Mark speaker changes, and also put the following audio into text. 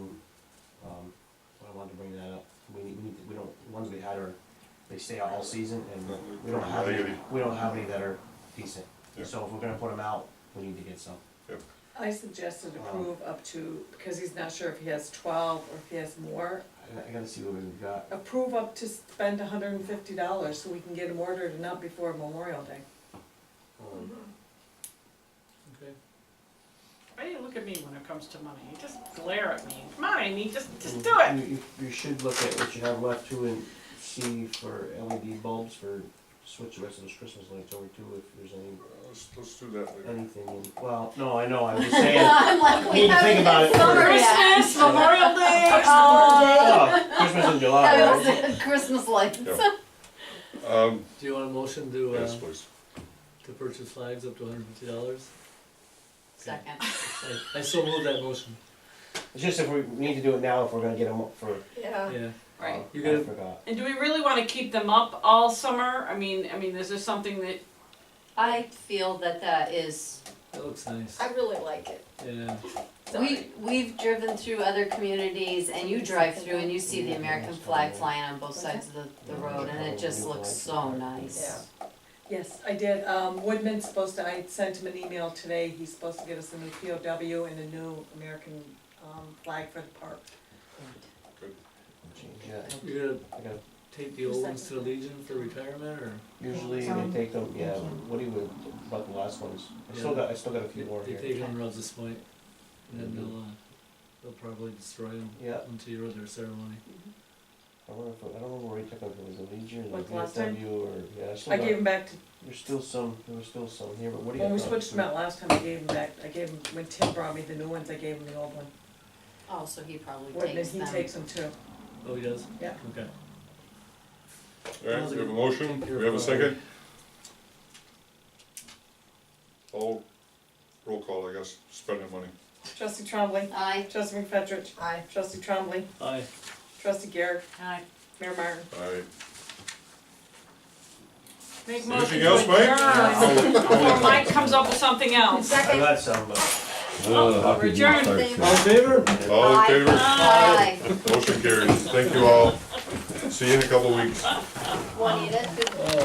Speaker 1: Um, stay out all season, and we don't
Speaker 2: Probably
Speaker 1: have any,
Speaker 2: negative.
Speaker 1: we don't have any that are decent.
Speaker 2: Yeah.
Speaker 1: So if we're gonna put them out, we need to get some.
Speaker 3: I suggested approve up to, because he's not sure if he has twelve or if he has more,
Speaker 1: I, I gotta see what we've got.
Speaker 3: approve up to spend hundred and fifty dollars so we can get them ordered and up before Memorial Day.
Speaker 1: Um,
Speaker 4: Okay. Why do you look at me when it comes to money? You just glare at me. Come on, Amy, just, just do it.
Speaker 1: You, you, you should look at what you have left too and see for LED bulbs for switch the rest of those Christmas lights over too, if there's any,
Speaker 2: Let's, let's do that later.
Speaker 1: anything, in- well, no, I know, I'm just saying.
Speaker 5: I'm like,
Speaker 1: Need
Speaker 5: we
Speaker 1: to think
Speaker 5: haven't
Speaker 1: about it
Speaker 5: had summer yet.
Speaker 4: Christmas, Memorial Day, uh,
Speaker 1: Oh, Christmas in July,
Speaker 5: That
Speaker 1: right?
Speaker 5: was Christmas lights.
Speaker 2: Yeah. Um,
Speaker 6: Do you want a motion to, uh,
Speaker 2: yes, please.
Speaker 6: to purchase flags up to hundred and fifty dollars?
Speaker 5: Second.
Speaker 6: I, I still move that motion,
Speaker 1: It's just if we we need to do it now, if we're gonna get them up for,
Speaker 5: Yeah.
Speaker 6: yeah.
Speaker 1: uh,
Speaker 4: Right.
Speaker 6: You
Speaker 1: I
Speaker 6: gotta-
Speaker 1: forgot.
Speaker 4: And do we really wanna keep them up all summer? I mean, I mean, is this something that,
Speaker 5: I feel that that is,
Speaker 6: That looks nice,
Speaker 7: I really like it.
Speaker 6: yeah.
Speaker 5: we, we've driven through other communities and you drive through and you see the American flag flying on both sides of the, the road and it just looks so nice.
Speaker 3: Yes, I did, um, Woodman's supposed to, I sent him an email today, he's supposed to get us a new POW and a new American, um, flag for the park.
Speaker 1: Change that.
Speaker 6: You gotta
Speaker 1: I gotta
Speaker 6: take the old ones to the Legion for retirement, or
Speaker 1: Usually they take them, yeah, Woody would, about the last ones, I still
Speaker 6: Yeah.
Speaker 1: got, I still got a few
Speaker 6: they
Speaker 1: more
Speaker 6: they
Speaker 1: here.
Speaker 6: take them around this point, and then
Speaker 1: Mhm.
Speaker 6: they'll, uh, they'll probably destroy them
Speaker 1: Yeah,
Speaker 6: until you're at their ceremony.
Speaker 1: I wonder if, I don't remember where he took them, if it was a Legion or
Speaker 3: Like last time?
Speaker 1: VFW or, yeah, I still
Speaker 3: I gave
Speaker 1: got,
Speaker 3: him back to,
Speaker 1: there's still some, there was still some here, but Woody had
Speaker 3: when we
Speaker 1: gone
Speaker 3: switched
Speaker 1: through.
Speaker 3: them out last time, I gave him back, I gave him, when Tim brought me the new ones, I gave him the old one.
Speaker 5: Oh, so he probably
Speaker 3: Woodman,
Speaker 5: takes
Speaker 3: he
Speaker 5: them.
Speaker 3: takes them too.
Speaker 6: Oh, he does?
Speaker 3: Yeah.
Speaker 6: Okay.
Speaker 2: All right, we have a motion, we have a second? All, Oh, roll call, I guess, spending money.
Speaker 3: Trustee Trombley.
Speaker 5: Aye.
Speaker 3: Trustee McFetrich.
Speaker 7: Aye.
Speaker 3: Trustee Trombley.
Speaker 6: Aye.
Speaker 3: Trustee Garrett.
Speaker 5: Aye.
Speaker 3: Mayor Martin.
Speaker 2: All right.
Speaker 4: make motion
Speaker 2: Anything
Speaker 4: to
Speaker 2: else, Mike?
Speaker 4: adjourn before Mike comes up with something else.
Speaker 1: I
Speaker 7: Second.
Speaker 1: got some, but
Speaker 4: Oh, we're adjourned.
Speaker 6: All in favor?
Speaker 2: All in
Speaker 5: Aye.
Speaker 2: favor?
Speaker 5: Aye.
Speaker 2: Motion carries. Thank you all. See you in a couple of weeks.
Speaker 5: Want to eat it?